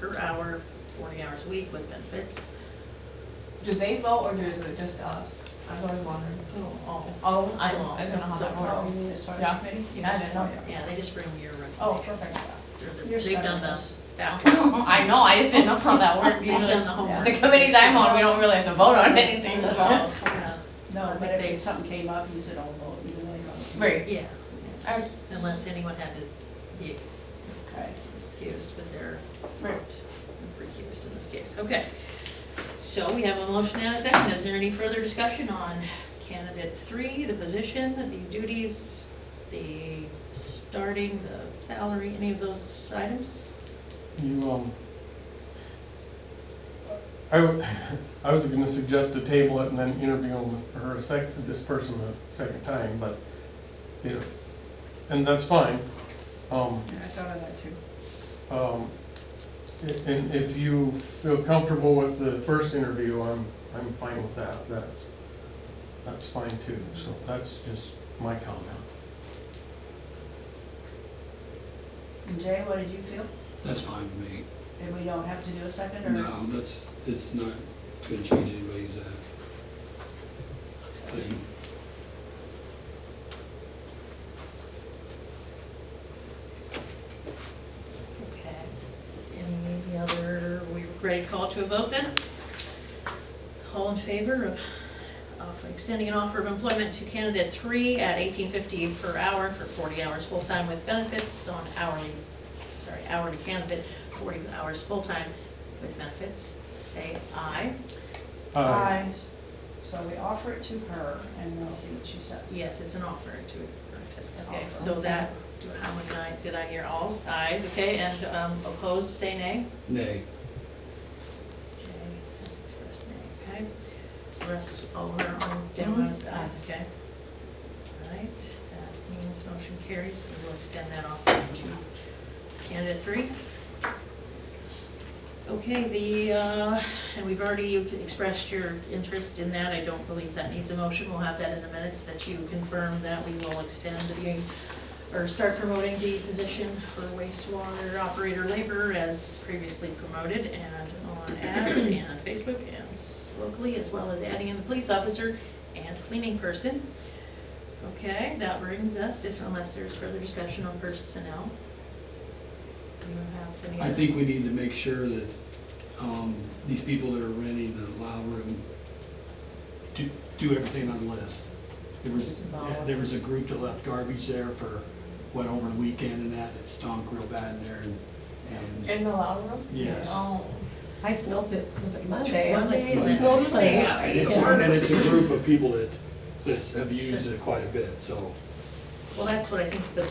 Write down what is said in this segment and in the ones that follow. per hour, forty hours a week with benefits. Do they vote or is it just us? I've always wondered. Oh, Oh, I, So- I don't know how so- that works. mean as far Oh, Yeah. Oh, as committee? Yeah, I didn't know. yeah, they just bring your Oh, recommendation. perfect. They're- You're They've done set. the, that, I know, I just didn't know how that worked they've done the usually. homework. The committees I'm on, we don't really have to vote on anything, so. Yeah, No, but They- if something came up, you said, oh, well, you know, you're Right. Yeah, I- unless anyone had to be okay. excused with their Right. recused in this case, okay. So we have a motion and a second, is there any further discussion on candidate three, the position, the duties, the starting, the salary, any of those items? You, um, I, w- I was gonna suggest to table it and then interview him or a sec, this person a second time, but, you know, and that's fine. Um, Yeah, I thought of that too. um, i- and if you feel comfortable with the first interview, I'm, I'm fine with that, that's, that's fine too, so that's just my comment. And Jay, what did you feel? That's fine with me. If we don't have to do a second or? No, that's, it's not gonna change anybody's, uh, thing. Okay, any other, we ready to call to a vote then? All in favor of, of extending an offer of employment to candidate three at eighteen fifty per hour for forty hours full-time with benefits on hourly, sorry, hourly candidate, forty hours full-time with benefits, say aye. Uh, Aye. So we offer it to her and we'll see what she says. Yes, it's an offer to, okay, Offer. so that, do- how many aye, did I hear alls, ayes, okay, and um, opposed, say nay? Nay, Jay has expressed nay, okay? The Rest over on Delos, ayes, okay? All right, that means motion carries, we will extend that offer to candidate three. Okay, the, uh, and we've already expressed your interest in that, I don't believe that needs a motion, we'll have that in the minutes, that you confirm that we will extend the, or start promoting the position for wastewater operator labor as previously promoted and on ads and Facebook and s- locally, as well as adding in the police officer and cleaning person. Okay, that brings us, if unless there's further discussion on personnel. Do you have any? I think we need to make sure that, um, these people that are renting the loud room do, do everything on the list. There was, Disembowel. there was a group that left garbage there for, went over the weekend and that, it stunk real bad in there and, and In the loud room? Yes. Oh. I smelled it, was it Monday? I was like, Monday, it Monday. smells funny. Tuesday, yeah. And it's, and it's a group of people that, that have used it quite a bit, so. Well, that's what I think the,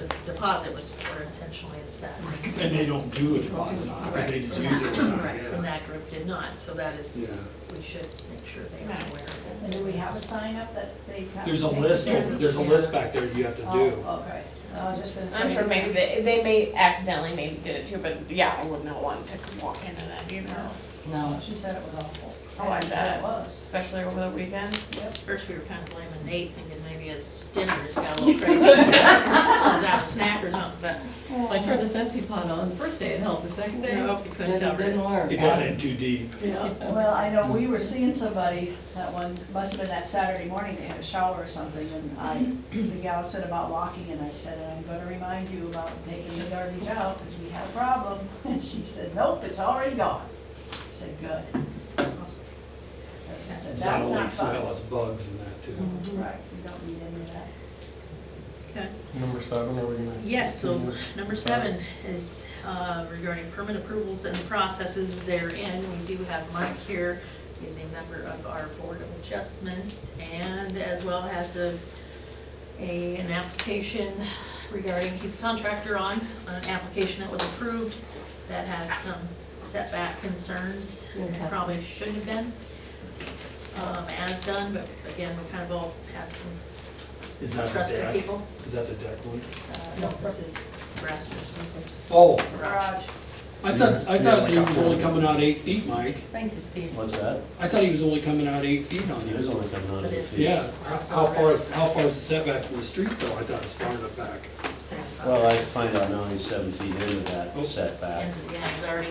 the deposit was for intentionally is that. And they don't do it deposit on, because they just use it all the time, Right, from yeah. that group did not, so that is, we should make sure they are aware of And it. do we have a sign up that they have? to There's a take? list, There's- there's a list back there you have to do. Oh, okay. I was just gonna say. I'm sure maybe they, they may accidentally maybe did it too, but yeah, I would not want to walk into that, you know? No, she said it was awful. Oh, I bet It it was, was. especially over the weekend. Yep. First, we were kind of blaming Nate, thinking maybe his dinner just got a little crazy. Out of snack or something, but So I turned the Sensi pot on, the first day it helped, the second day. no, we couldn't cover it. It got in too deep. Yeah. Well, I know, we were seeing somebody, that one, must have been that Saturday morning, they had a shower or something, and I, the gal said about locking, and I said, I'm gonna remind you about taking the garbage out, because we had a problem, and she said, nope, it's already gone. I said, good. As I said, It's not that's only not smell, fun. it's bugs and that Mm-hmm. too. Right, we don't need any of that. Okay. number seven, are we gonna? Yes, so continue? number seven is uh, regarding permit approvals and processes therein. We do have Mike here, he's a member of our Board of Adjustment, and as well has a, a, an application regarding, he's a contractor on, an application that was approved that has some setback concerns, and Fantastic. probably shouldn't have been um, as done, but again, we kind of all had some Is that the trusted deck? people. Is that the deck one? Uh, No, this is Rasmussen's Oh, garage. I thought, I thought he was only coming out eight feet, Mike. Thank you, Steve. What's that? I thought he was only coming out eight feet on It is yours. only coming on But eight it's- feet. Yeah, how far, how far is the setback from the street though? I thought it was far enough back. Well, I find out now he's seven feet into that setback. And, yeah, he's already